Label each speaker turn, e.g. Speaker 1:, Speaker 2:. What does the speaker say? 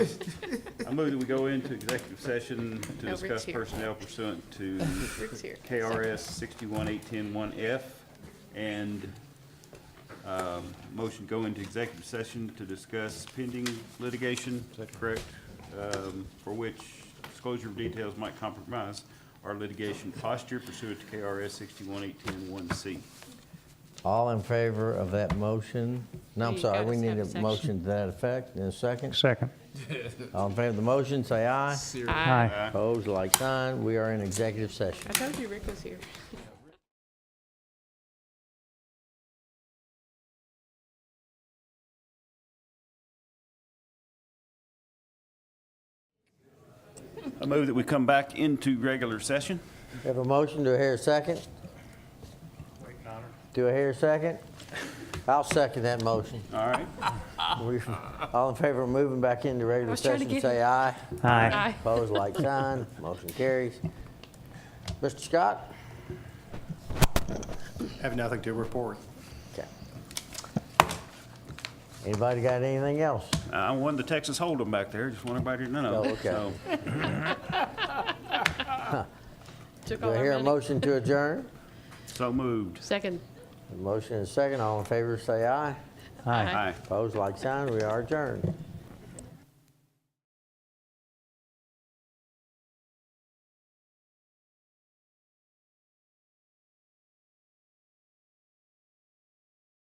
Speaker 1: I move that we go into executive session to
Speaker 2: No, Rick's
Speaker 1: discuss
Speaker 2: here.
Speaker 1: personnel pursuant to
Speaker 2: Rick's here.
Speaker 1: KRS sixty-one eight ten one F and, um, motion go into executive session to discuss pending litigation, correct? Um, for which disclosure of details might compromise our litigation posture pursuant to KRS sixty-one eight ten one C.
Speaker 3: All in favor of that motion? No, I'm
Speaker 2: You
Speaker 3: sorry,
Speaker 2: gotta
Speaker 3: we need
Speaker 2: have a
Speaker 3: a
Speaker 2: section.
Speaker 3: motion to that effect in a second.
Speaker 4: Second.
Speaker 3: All in favor of the motion, say aye.
Speaker 2: Aye.
Speaker 4: Aye.
Speaker 3: Opposed, like sign. We are in executive session.
Speaker 2: I told you Rick was here.
Speaker 1: I move that we come back into regular session.
Speaker 3: We Have a motion, do I hear a second? Do I hear a second? I'll second that motion.
Speaker 1: All right,
Speaker 3: We- All in favor of moving back into regular
Speaker 2: was trying to
Speaker 3: session,
Speaker 2: get
Speaker 3: say
Speaker 2: him.
Speaker 3: aye.
Speaker 4: Aye.
Speaker 2: Aye.
Speaker 3: Opposed, like sign. Motion carries. Mr. Scott?
Speaker 5: Have nothing to report.
Speaker 3: Okay. Anybody got anything else?
Speaker 1: I won the Texas Hold'em back there, just want everybody to know.
Speaker 3: Oh, okay.
Speaker 1: So,
Speaker 2: Took
Speaker 3: Do
Speaker 2: all
Speaker 3: I
Speaker 2: our
Speaker 3: hear a
Speaker 2: money.
Speaker 3: motion to adjourn?
Speaker 1: So moved.
Speaker 2: Second.
Speaker 3: A Motion and a second. All in favor, say aye.
Speaker 4: Aye.
Speaker 1: Aye.
Speaker 3: Opposed, like sign. We are adjourned.